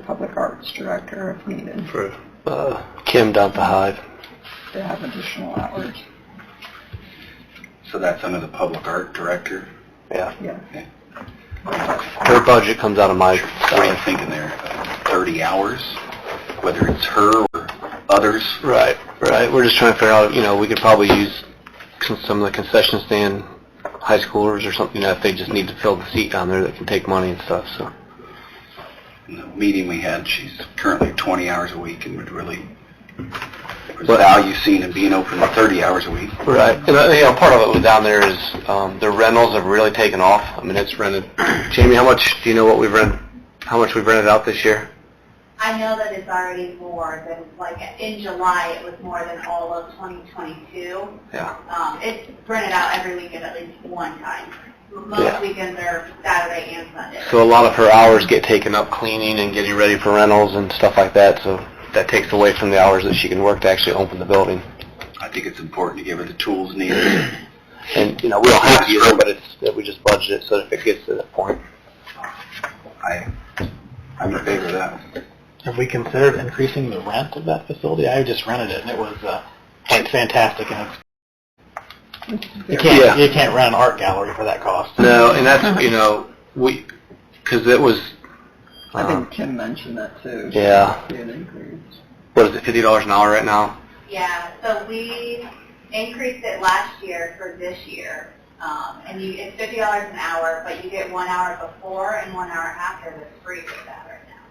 public arts director if needed for, Uh, Kim down at the Hive. to have additional hours. so that's under the public art director. Yeah. Yeah. Her budget comes out of my What are you salary. thinking there? Thirty hours, whether it's her or others? Right, right. We're just trying to figure out, you know, we could probably use con- some of the concession stand high schoolers or something, you know, if they just need to fill the seat down there that can take money and stuff, so. In the meeting we had, she's currently twenty hours a week and would really, there's What- value seen in being open thirty hours a week. Right, and uh, you know, part of it down there is um, the rentals have really taken off. I mean, it's rented. Jamie, how much do you know what we've rented? How much we've rented out this year? I know that it's already more than, like, in July, it was more than all of 2022. Yeah. Um, it's rented out every weekend at least one time. Yeah. Most weekends are Saturday and Sunday. So a lot of her hours get taken up cleaning and getting ready for rentals and stuff like that. So that takes away from the hours that she can work to actually open the building. I think it's important to give her the tools needed. And you know, we don't have to use it, but it's that we just budget it so that if it gets to that point. I, I'm in favor of that. Have we considered increasing the rent of that facility? I just rented it and it was uh, quite fantastic and it's, you can't, Yeah. you can't rent an art gallery for that cost. No, and that's you know we because it was. I Um, think Kim mentioned that too. yeah. Be an increase. What is it? Fifty dollars an hour right now. Yeah, so we increased it last year for this year. Um, and you, it's $50 an hour, but you get one hour before and one hour after that's free for that right now.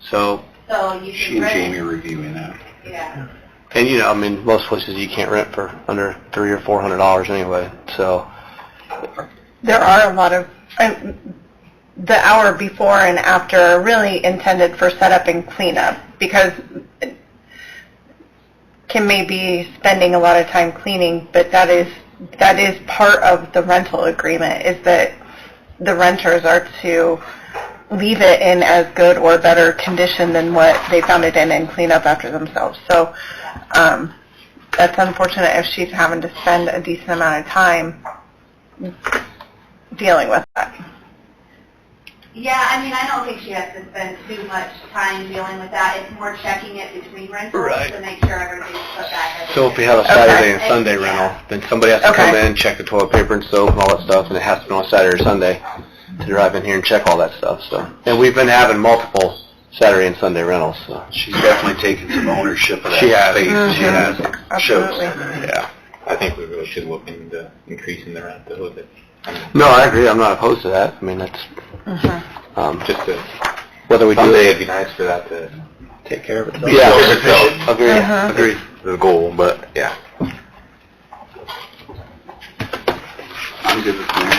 So So you She can and rent, Jamie are reviewing that. yeah. And you know, I mean, most places you can't rent for under three or four hundred dollars anyway. So There are a lot of, I- the hour before and after are really intended for setup and cleanup because Kim may be spending a lot of time cleaning, but that is, that is part of the rental agreement is that the renters are to leave it in as good or better condition than what they found it in and clean up after themselves. So, um, that's unfortunate if she's having to spend a decent amount of time dealing with that. Yeah, I mean, I don't think she has to spend too much time dealing with that. It's more checking it between rentals Right. to make sure everything's put back. every so if we year. have a Saturday and Okay. Sunday rental, then somebody has to come Okay. in, check the toilet paper and soap and all that stuff, and it has to be on Saturday or Sunday to drive in here and check all that stuff. So and we've been having multiple Saturday and Sunday rentals. So She's definitely taking some ownership of that She has. space. Mhm. She has. It Absolutely. Shows. yeah, I think we really should look into increasing the rent a little bit, no, I agree. I'm not opposed to that. I mean, that's um, just to, whether we do it. be nice for that to take care of itself. Yeah, agree, Mhm. agree. The goal, but yeah. I'm good with yours.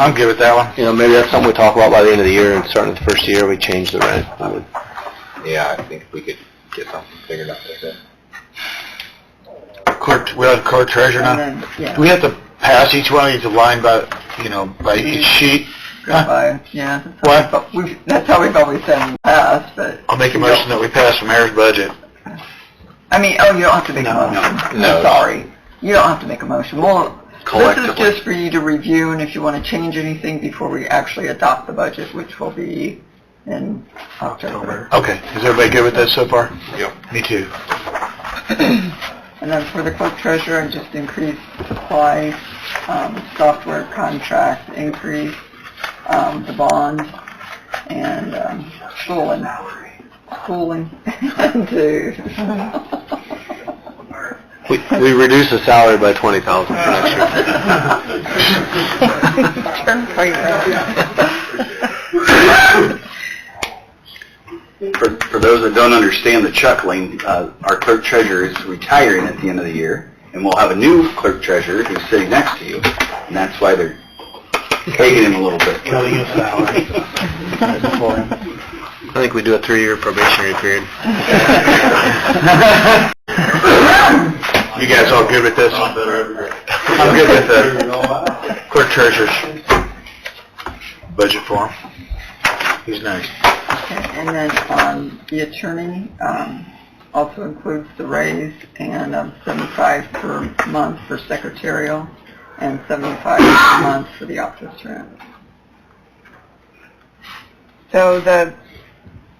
I'm good with that one. You know, maybe that's something we talk about by the end of the year, and starting the first year, we change the rent. I would Yeah, I think we could get something figured out there. Court, we have court treasurer And now. then, yeah, Do we have to pass each one of these line by, you know, by each sheet? by, yeah. that's how What? we've- But we've, that's how we've always done in the past, but, I'll make a motion that we pass the mayor's budget. I mean, oh, you don't have to make a motion. no. I'm sorry. You don't have to make a motion. Well, this is Collectively. just for you to review and if you want to change anything before we actually adopt the budget, which will be in October. Okay, is everybody good with that so far? Yep. Me too. And then for the clerk treasurer, I just increased supply, um, software contract, increase, um, the bond, and, um, schooling. Schooling, uh, to We, we reduce the salary by twenty thousand for next year. For, for those that don't understand the chuckling, uh, our clerk treasurer is retiring at the end of the year, and we'll have a new clerk treasurer who's sitting next to you, and that's why they're taking him a little bit. Cutting his salary. I think we do a three-year probationary period. You guys all good with this? I'm good with the clerk treasurer's budget form. He's nice. And then, um, the attorney, um, also includes the raise and, um, seventy-five per month for secretarial and seventy-five per month for the office rent. So the